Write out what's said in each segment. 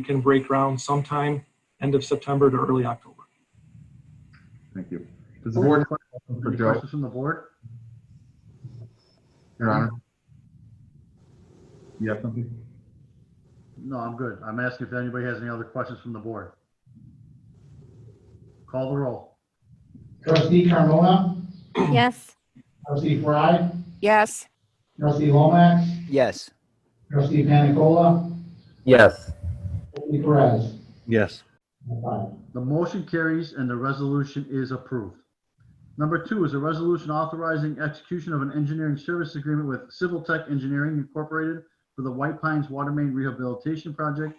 we can break ground sometime end of September to early October. Thank you. Does the board, for Any Joe. questions from the board? Your Honor? You have something? No, I'm good. I'm asking if anybody has any other questions from the board. Call the roll. Trustee Carmona, Yes. trustee Fry, Yes. trustee Lomax, Yes. trustee Panicola, Yes. trustee Perez. Yes. Five. The motion carries and the resolution is approved. Number two is a resolution authorizing execution of an engineering service agreement with Civil Tech Engineering Incorporated for the White Pines Water Main Rehabilitation Project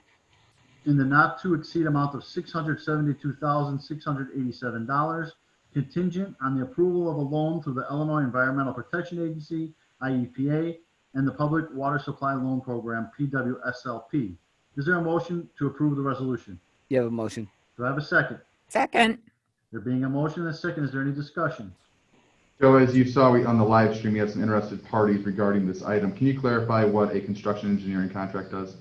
in the not to exceed amount of $672,687 contingent on the approval of a loan through the Illinois Environmental Protection Agency, IEPA, and the Public Water Supply Loan Program, PWSLP. Is there a motion to approve the resolution? You have a motion? Do I have a second? Second. There being a motion and a second, is there any discussion? Joe, as you saw we- on the live stream, we had some interested parties regarding this item. Can you clarify what a construction engineering contract does?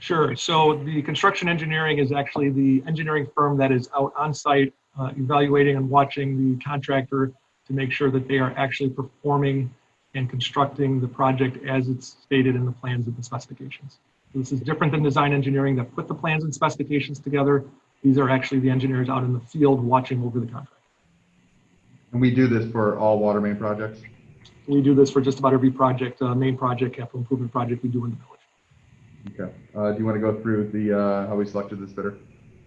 Sure. So the construction engineering is actually the engineering firm that is out on site uh, evaluating and watching the contractor to make sure that they are actually performing and constructing the project as it's stated in the plans and the specifications. So This is different than design engineering that put the plans and specifications together. These are actually the engineers out in the field watching over the contract. And we do this for all water main projects. We do this for just about every project, uh, main project, capital improvement project we do in the village. Okay. Uh, do you want to go through the, uh, how we selected this bidder?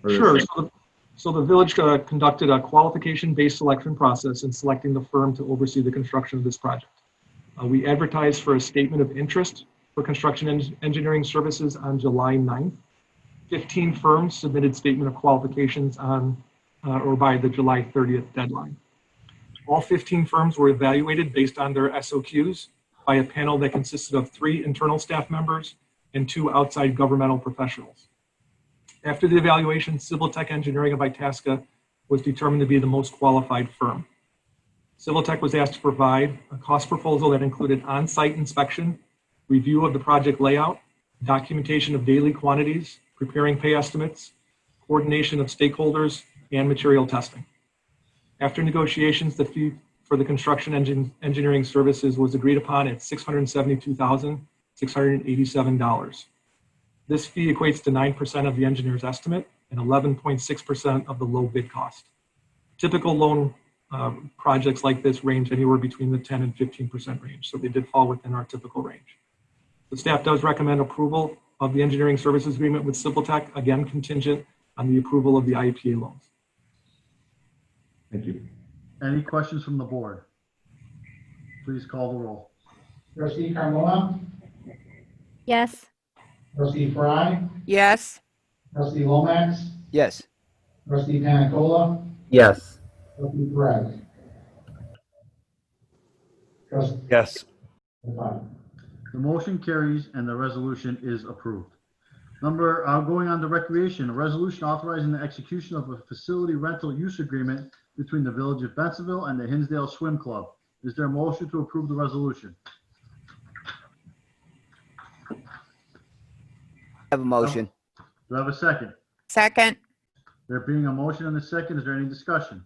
Or this- Sure. So the, so the village uh, conducted a qualification-based selection process in selecting the firm to oversee the construction of this project. Uh, we advertised for a statement of interest for construction en- engineering services on July 9th. 15 firms submitted statement of qualifications on uh, or by the July 30th deadline. All 15 firms were evaluated based on their SOQs by a panel that consisted of three internal staff members and two outside governmental professionals. After the evaluation, Civil Tech Engineering of Itasca was determined to be the most qualified firm. Civil Tech was asked to provide a cost proposal that included on-site inspection, review of the project layout, documentation of daily quantities, preparing pay estimates, coordination of stakeholders, and material testing. After negotiations, the fee for the construction engine, engineering services was agreed upon at $672,687. This fee equates to 9% of the engineer's estimate and 11.6% of the low bid cost. Typical loan uh, projects like this range anywhere between the 10 and 15% range, so they did fall within our typical range. The staff does recommend approval of the engineering services agreement with Civil Tech, again contingent on the approval of the IEPA loans. Thank you. Any questions from the board? Please call the roll. Trustee Carmona, Yes. trustee Fry, Yes. trustee Lomax, Yes. trustee Panicola, Yes. trustee Perez. Trustee Yes. five. The motion carries and the resolution is approved. Number, uh, going on to recreation, a resolution authorizing the execution of a facility rental use agreement between the Village of Bensonville and the Hinsdale Swim Club. Is there a motion to approve the resolution? Have a motion? Do I have a second? Second. There being a motion and a second, is there any discussion?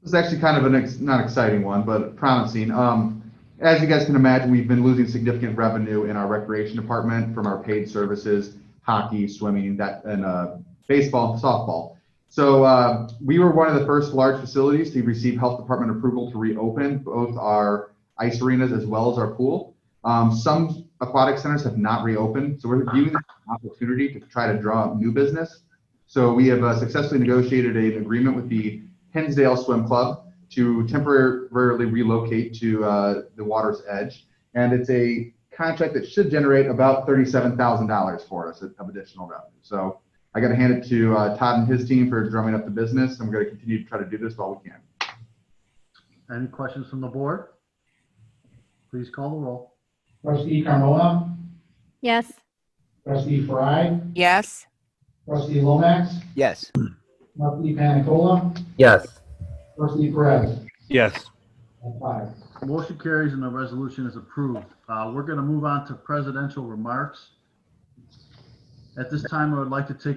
This is actually kind of an, ex- not exciting one, but promising. Um, as you guys can imagine, we've been losing significant revenue in our recreation department from our paid services, hockey, swimming, that, and, uh, baseball, softball. So, uh, we were one of the first large facilities to receive health department approval to reopen both our ice arenas as well as our pool. Um, some aquatic centers have not reopened, so we're viewing this as an opportunity to try to draw up new business. So we have uh, successfully negotiated an agreement with the Hensdale Swim Club to temporarily relocate to uh, the water's edge. And it's a contract that should generate about $37,000 for us of additional revenue. So I got to hand it to uh, Todd and his team for drumming up the business. and we're going to continue to try to do this while we can. Any questions from the board? Please call the roll. Trustee Carmona, Yes. trustee Fry, Yes. trustee Lomax, Yes. trustee Panicola, Yes. trustee Perez. Yes. Five. Motion carries and the resolution is approved. Uh, We're going to move on to presidential remarks. At this time, I would like to take